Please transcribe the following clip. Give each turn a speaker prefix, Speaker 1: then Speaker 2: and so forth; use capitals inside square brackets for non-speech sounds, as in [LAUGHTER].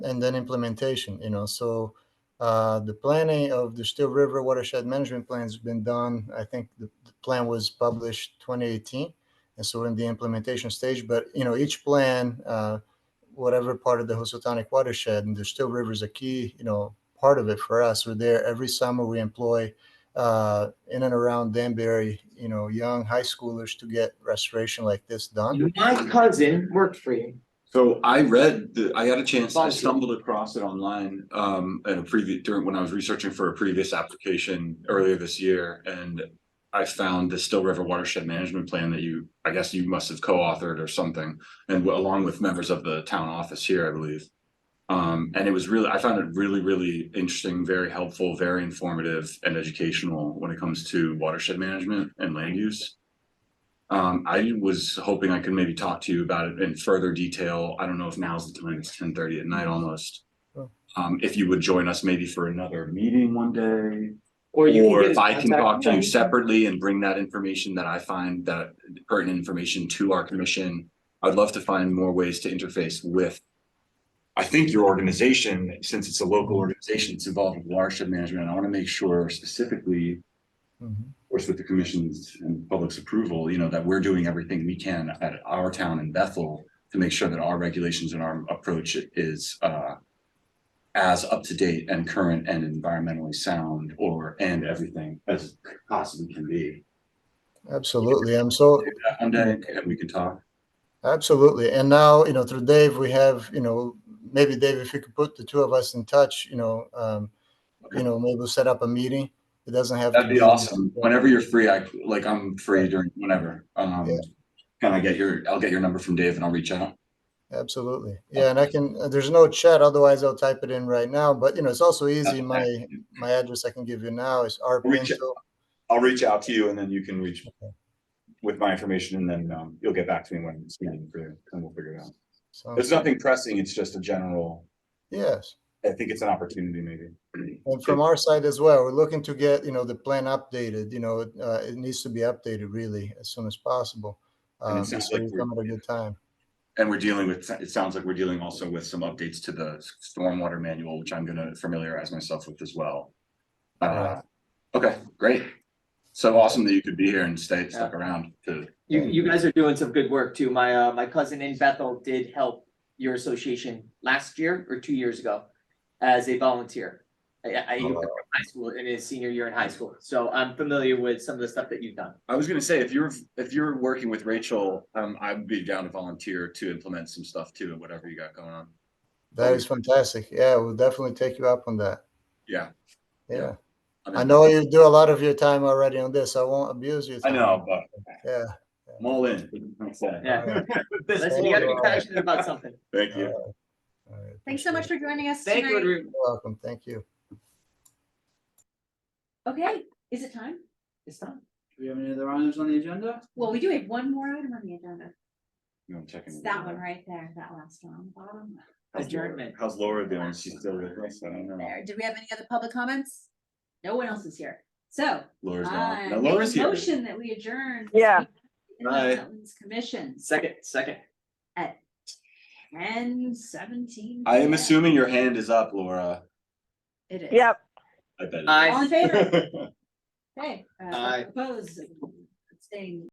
Speaker 1: and then implementation, you know, so uh, the planning of the Still River watershed management plan has been done. I think the, the plan was published 2018. And so we're in the implementation stage, but you know, each plan, uh, whatever part of the Housatonic watershed and the Still River is a key, you know, part of it for us. We're there every summer. We employ uh, in and around Danbury, you know, young high schoolers to get restoration like this done.
Speaker 2: My cousin worked for you.
Speaker 3: So I read, the I had a chance, I
Speaker 2: Bumpy.
Speaker 3: stumbled across it online, um, at a previous, during, when I was researching for a previous application earlier this year, and I found the Still River Watershed Management Plan that you, I guess you must have co-authored or something, and along with members of the town office here, I believe. Um, and it was really, I found it really, really interesting, very helpful, very informative and educational when it comes to watershed management and land use. Um, I was hoping I could maybe talk to you about it in further detail. I don't know if now's the time, it's ten thirty at night almost.
Speaker 1: Sure.
Speaker 3: Um, if you would join us maybe for another meeting one day,
Speaker 2: Or you.
Speaker 3: or
Speaker 2: get his
Speaker 3: if I can
Speaker 2: contact
Speaker 3: talk to you
Speaker 2: info.
Speaker 3: separately and bring that information that I find that pertinent information to our commission. I'd love to find more ways to interface with. I think your organization, since it's a local organization, it's involved with watershed management. I want to make sure specifically
Speaker 1: Mhm.
Speaker 3: of course, with the commission's and public's approval, you know, that we're doing everything we can at our town in Bethel to make sure that our regulations and our approach is uh as up to date and current and environmentally sound or and everything as possibly can be.
Speaker 1: Absolutely. I'm so
Speaker 3: Do that One day and we can talk.
Speaker 1: Absolutely. And now, you know, through Dave, we have, you know, maybe Dave, if you could put the two of us in touch, you know, um, you know, maybe we'll set up a meeting. It doesn't have. to
Speaker 3: That'd be awesome. Whenever you're free, I like I'm free during whenever. Um
Speaker 1: Yeah.
Speaker 3: can I get your, I'll get your number from Dave and I'll reach out.
Speaker 1: Absolutely. Yeah. And I can, uh, there's no chat, otherwise I'll type it in right now, but you know, it's also easy. My, my address I can give you now is
Speaker 3: Reach out.
Speaker 1: rpinto
Speaker 3: I'll reach out to you and then you can reach with my information and then um you'll get back to me when it's needed for you and we'll figure it out.
Speaker 1: so-
Speaker 3: There's nothing pressing, it's just a general,
Speaker 1: Yes.
Speaker 3: I think it's an opportunity maybe.
Speaker 1: And from our side as well, we're looking to get, you know, the plan updated, you know, it, uh, it needs to be updated really as soon as possible.
Speaker 3: And it
Speaker 1: Um,
Speaker 3: sounds
Speaker 1: so
Speaker 3: like
Speaker 1: we
Speaker 3: we're-
Speaker 1: come at a good time.
Speaker 3: And we're dealing with, it sounds like we're dealing also with some updates to the stormwater manual, which I'm gonna familiarize myself with as well. Uh, okay, great. So awesome that you could be here and stay, stuck around to,
Speaker 2: You, you guys are doing some good work too. My, uh, my cousin in Bethel did help your association last year or two years ago as a volunteer. I, I, he was in high school, in his senior year in high school. So I'm familiar with some of the stuff that you've done.
Speaker 3: I was gonna say, if you're, if you're working with Rachel, um, I'd be down to volunteer to implement some stuff too, whatever you got going on.
Speaker 1: That is fantastic. Yeah, we'll definitely take you up on that.
Speaker 3: Yeah.
Speaker 1: Yeah.
Speaker 3: I'm
Speaker 1: I
Speaker 3: in.
Speaker 1: know you do a lot of your time already on this. I won't abuse you.
Speaker 3: I know, but [LAUGHS]
Speaker 1: Yeah.
Speaker 3: I'm all in. That's it.
Speaker 2: Yeah. Listen,
Speaker 1: all
Speaker 2: you gotta be
Speaker 1: right.
Speaker 2: passionate about something.
Speaker 3: Thank you.
Speaker 1: All right,
Speaker 4: Thanks so much
Speaker 1: appreciate
Speaker 4: for joining us
Speaker 2: Thank you,
Speaker 4: tonight.
Speaker 2: Adrian.
Speaker 1: it. You're Welcome. Thank you.
Speaker 4: Okay, is it time?
Speaker 2: It's done.
Speaker 5: Do we have any other items on the agenda?
Speaker 4: Well, we do have one more item on the agenda.
Speaker 3: You want to check in
Speaker 4: It's
Speaker 3: with
Speaker 4: that
Speaker 3: Laura?
Speaker 4: one right there, that last one on the bottom.
Speaker 3: How's Laura-
Speaker 2: Adjournment.
Speaker 3: How's Laura doing? She's still with us? I don't know.
Speaker 4: There, did we have any other public comments? No one else is here, so.
Speaker 3: Laura's
Speaker 4: I
Speaker 3: gone. No,
Speaker 4: make
Speaker 3: Laura's
Speaker 4: a
Speaker 3: here.
Speaker 4: Motion that we adjourn.
Speaker 6: Yeah.
Speaker 3: Bye.
Speaker 4: Wetlands Commission,
Speaker 2: Second, second.
Speaker 4: ten seventeen.
Speaker 3: I am assuming your hand is up, Laura.
Speaker 4: It is.
Speaker 6: Yep.
Speaker 3: I bet. it
Speaker 2: Aye.
Speaker 3: [LAUGHS]
Speaker 4: All in favor?
Speaker 3: is.
Speaker 4: Okay. uh,
Speaker 2: Aye.
Speaker 4: Opposed, staying.